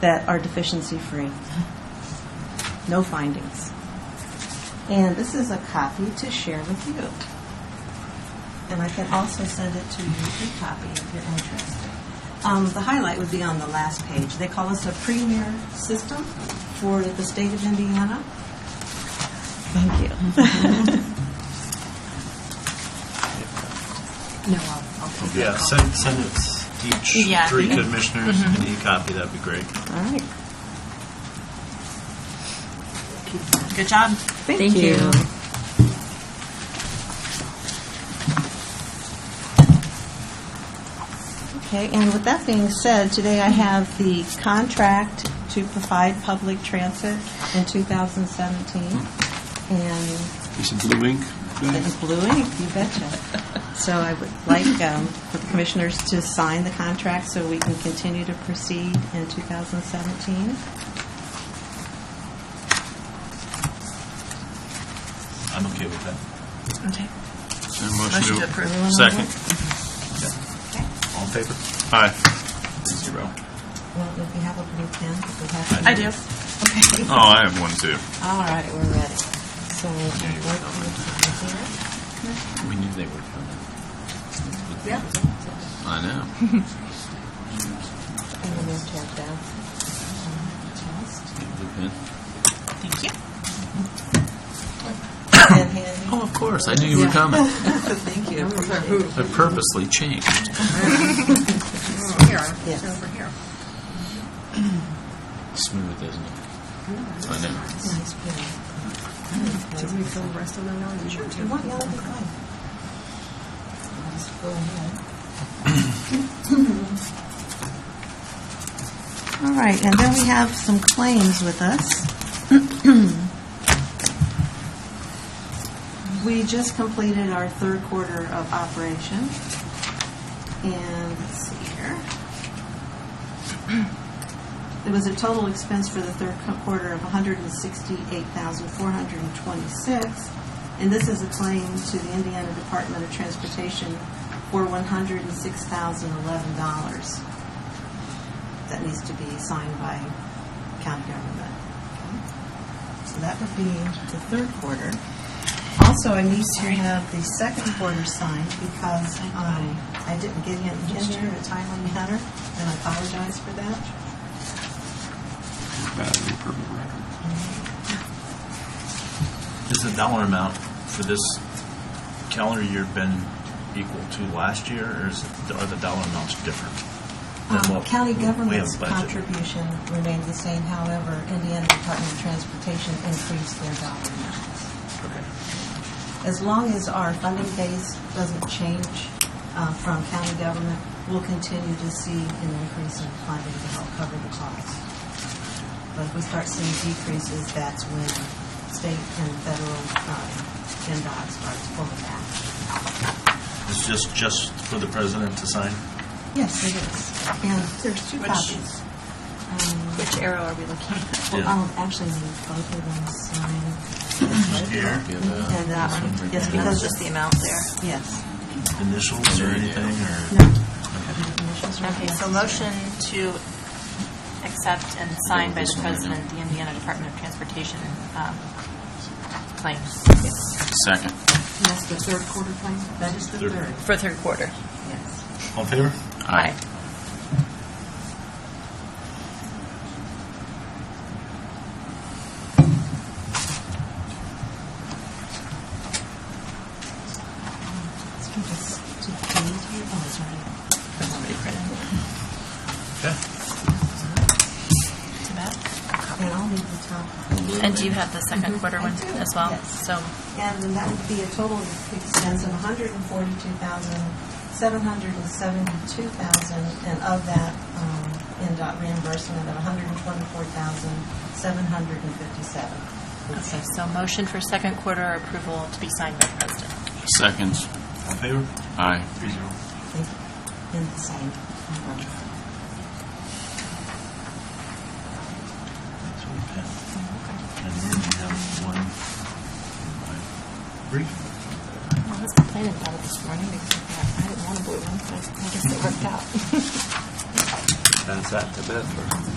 that are deficiency-free. No findings. And this is a copy to share with you. And I can also send it to you, a copy if you're interested. Um, The highlight would be on the last page. They call us a premier system for the state of Indiana. Thank you. No, I'll, I'll take Yeah, that call. send, send it to Yeah. each three Mm-hmm. commissioners, an e-copy, that'd be great. All right. Good job. Thank you. Okay, and with that being said, today I have the contract to provide public transit in 2017. And Is it blue ink? it's blue ink, you betcha. So I would like um, for the commissioners to sign the contract so we can continue to proceed in 2017. I'm okay with that. Okay. Motion to approve. Everyone on Second. board? Mm-hmm. All in favor? Aye. Zero. Well, if we have a blue pen, if we have. I do. Okay. Oh, I have one too. All right, we're ready. So we'll work with We knew they were coming. the here. I know. And then we'll tap down. Chest. Blue pen. Thank you. And hand. Oh, of course, I knew you were coming. Thank you. I purposely changed. Here, Yes. over here. Smooth, isn't it? I know. Nice pen. Did we fill the rest of them out? Sure. Do you want yellow or white? I'll just go ahead. All right, and then we have some claims with us. We just completed our third quarter of operation. And let's see here. It was a total expense for the third co- quarter of $168,426, and this is a claim to the Indiana Department of Transportation for $106,011. That needs to be signed by county government. So that would be the third quarter. Also, I need to have the second quarter signed because um, I didn't get it in there in a timely manner, and I apologize for that. Has the dollar amount for this calendar year been equal to last year, or is, it- are the dollar amounts different? than Um, what County we have government's budgeted? contribution remained the same, however, Indiana Department of Transportation increased their dollar amounts. Okay. As long as our funding base doesn't change uh, from county government, we'll continue to see an increase in funding to help cover the costs. But if we start seeing decreases, that's when state and federal um, NDOT starts pulling back. It's just, just for the president to sign? Yes, it is. And there's two Which- copies. Um, Which arrow are we looking at? Well, Yeah. I'll actually need both of them signed. Here, Give, uh, And that this one, yes, right That there. was just the amount there. Yes. initials or anything, or? No. Okay, so motion to accept and sign by the president the Indiana Department of Transportation um, claims Second. That's the third quarter claim? That is the Third. third, for third quarter. yes. All in favor? Aye. Let's give this to Katie. Oh, it's already. Okay. To Matt? And I'll need the top. And do you have the second quarter one I do, as well? yes. So, And then that would be a total expense of $142,772,000, and of that, um, NDOT reimbursement of okay, $124,757. so motion for second quarter approval to be signed by the president. Seconds. All in favor? Aye. Three zero. In the same. That's what we pen. And then you have one in my brief. I was complaining about it this morning because I didn't want a blue one, but I guess it worked out. That's that to Beth.